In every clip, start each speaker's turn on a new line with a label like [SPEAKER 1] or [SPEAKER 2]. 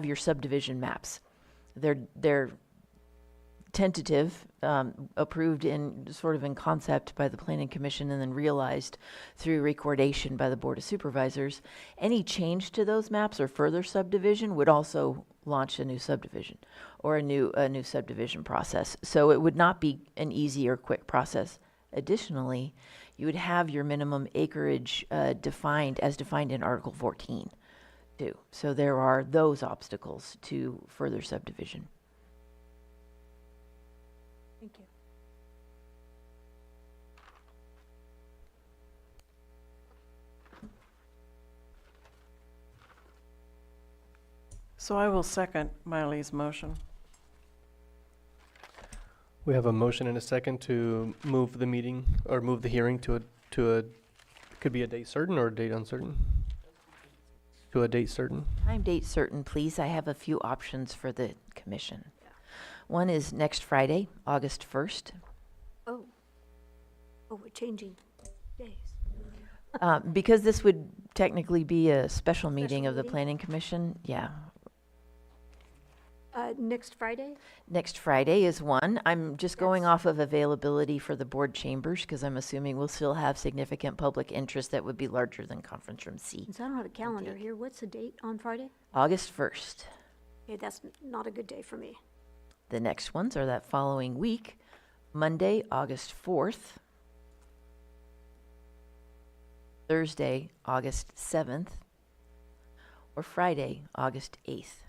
[SPEAKER 1] of your subdivision maps. They're, they're tentative, um, approved in, sort of in concept by the planning commission and then realized through recordation by the board of supervisors. Any change to those maps or further subdivision would also launch a new subdivision or a new, a new subdivision process. So it would not be an easy or quick process. Additionally, you would have your minimum acreage, uh, defined as defined in Article fourteen do. So there are those obstacles to further subdivision.
[SPEAKER 2] Thank you.
[SPEAKER 3] So I will second Miley's motion.
[SPEAKER 4] We have a motion and a second to move the meeting, or move the hearing to a, to a, could be a date certain or a date uncertain? To a date certain.
[SPEAKER 1] Time, date certain, please. I have a few options for the commission. One is next Friday, August 1st.
[SPEAKER 2] Oh. Oh, we're changing days.
[SPEAKER 1] Uh, Because this would technically be a special meeting
[SPEAKER 2] Special
[SPEAKER 1] of the
[SPEAKER 2] meeting.
[SPEAKER 1] planning commission, yeah.
[SPEAKER 2] Uh, next Friday?
[SPEAKER 1] Next Friday is one. I'm just going off of availability for the board chambers because I'm assuming we'll still have significant public interest that would be larger than conference room C.
[SPEAKER 2] Since I don't have a calendar here, what's the date on Friday?
[SPEAKER 1] August 1st.
[SPEAKER 2] Okay, that's n- not a good day for me.
[SPEAKER 1] The next ones are that following week, Monday, August 4th, Thursday, August 7th, or Friday, August 8th.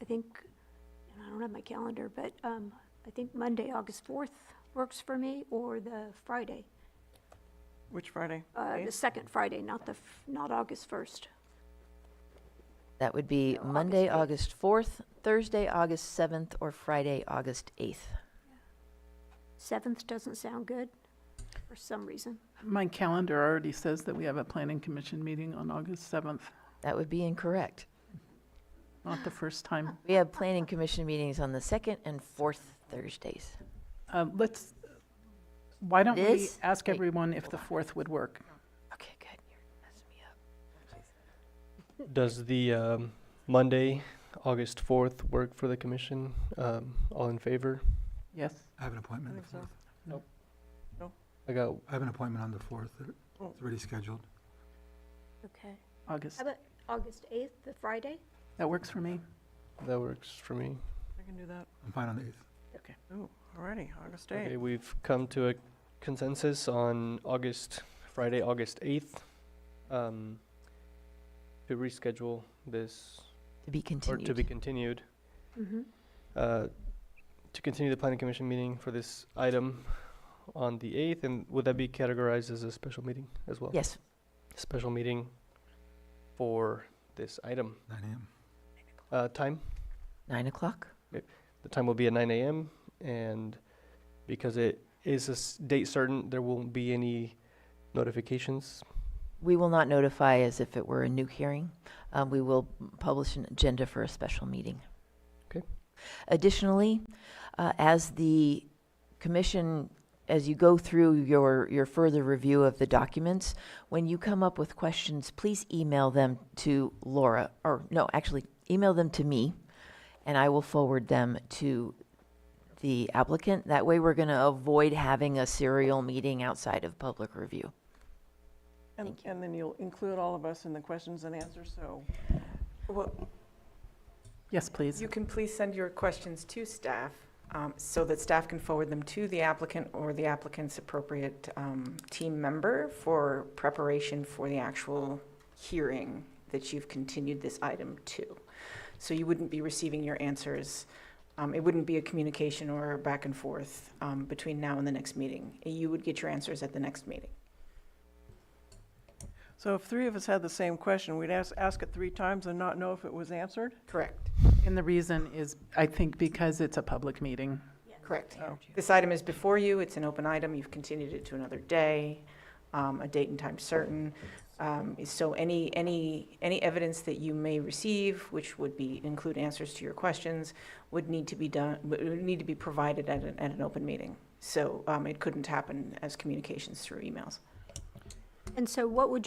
[SPEAKER 2] I think, and I don't have my calendar, but, um, I think Monday, August fourth works for me, or the Friday,
[SPEAKER 3] Which Friday?
[SPEAKER 2] uh, the
[SPEAKER 3] Eighth?
[SPEAKER 2] second Friday, not the, f- not August first.
[SPEAKER 1] That would be
[SPEAKER 2] So August
[SPEAKER 1] Monday,
[SPEAKER 2] 8th.
[SPEAKER 1] August 4th, Thursday, August 7th, or Friday, August 8th.
[SPEAKER 2] Seventh doesn't sound good, for some reason.
[SPEAKER 5] My calendar already says that we have a planning commission meeting on August 7th,
[SPEAKER 1] That would be incorrect.
[SPEAKER 5] not the first time.
[SPEAKER 1] We have planning commission meetings on the second and fourth Thursdays.
[SPEAKER 5] Uh, Let's, why don't we
[SPEAKER 1] This-
[SPEAKER 5] ask
[SPEAKER 1] wait,
[SPEAKER 5] everyone if the 4th would work?
[SPEAKER 1] Okay, good. You're messing me up.
[SPEAKER 4] Does the, um, Monday, August fourth work for the commission? Um, all in favor?
[SPEAKER 5] Yes?
[SPEAKER 6] I have an appointment
[SPEAKER 3] I
[SPEAKER 6] on the
[SPEAKER 3] think so.
[SPEAKER 6] fourth.
[SPEAKER 4] I got,
[SPEAKER 6] I have an appointment on the fourth.
[SPEAKER 3] Oh.
[SPEAKER 6] It's already scheduled.
[SPEAKER 2] Okay.
[SPEAKER 5] August.
[SPEAKER 2] How about August eighth, the Friday?
[SPEAKER 5] That works for me.
[SPEAKER 4] that works for me.
[SPEAKER 3] I can do that.
[SPEAKER 6] I'm fine on the eighth.
[SPEAKER 3] Ooh, alrighty, August
[SPEAKER 4] Okay,
[SPEAKER 3] 8th.
[SPEAKER 4] we've come to a consensus on August, Friday, August eighth, um, to reschedule this,
[SPEAKER 1] To be
[SPEAKER 4] or to be
[SPEAKER 1] continued.
[SPEAKER 4] continued.
[SPEAKER 2] Mm-hmm.
[SPEAKER 4] uh, to continue the planning commission meeting for this item on the eighth, and would that be categorized as a special meeting as well?
[SPEAKER 1] Yes,
[SPEAKER 4] Special meeting for this item.
[SPEAKER 6] Nine AM.
[SPEAKER 4] Uh, time,
[SPEAKER 1] nine o'clock.
[SPEAKER 4] the time will be at nine AM, and because it is a s- date certain, there won't be any notifications.
[SPEAKER 1] We will not notify as if it were a new hearing. Um, we will publish an agenda for a special meeting.
[SPEAKER 4] Okay.
[SPEAKER 1] Additionally, uh, as the commission, as you go through your, your further review of the documents, when you come up with questions, please email them to Laura, or no, actually, email them to me, and I will forward them to the applicant. That way, we're going to avoid having a serial meeting outside of public review.
[SPEAKER 3] And, and then you'll include all of us in the questions and answers, so.
[SPEAKER 7] Well,
[SPEAKER 5] Yes, please.
[SPEAKER 7] you can please send your questions to staff um, so that staff can forward them to the applicant or the applicant's appropriate um, team member for preparation for the actual hearing that you've continued this item to. So you wouldn't be receiving your answers. um, It wouldn't be a communication or back and forth um, between now and the next meeting. You would get your answers at the next meeting.
[SPEAKER 3] So if three of us had the same question, we'd ask, ask it three times and not know if it was answered?
[SPEAKER 7] Correct.
[SPEAKER 5] And the reason is, I think, because it's a public meeting.
[SPEAKER 7] Correct.
[SPEAKER 3] Oh.
[SPEAKER 7] This item is before you, it's an open item, you've continued it to another day, um, a date and time certain. Um, So any, any, any evidence that you may receive, which would be, include answers to your questions, would need to be done, would would need to be provided at an, at an open meeting. So um, it couldn't happen as communications through emails.
[SPEAKER 2] And so what would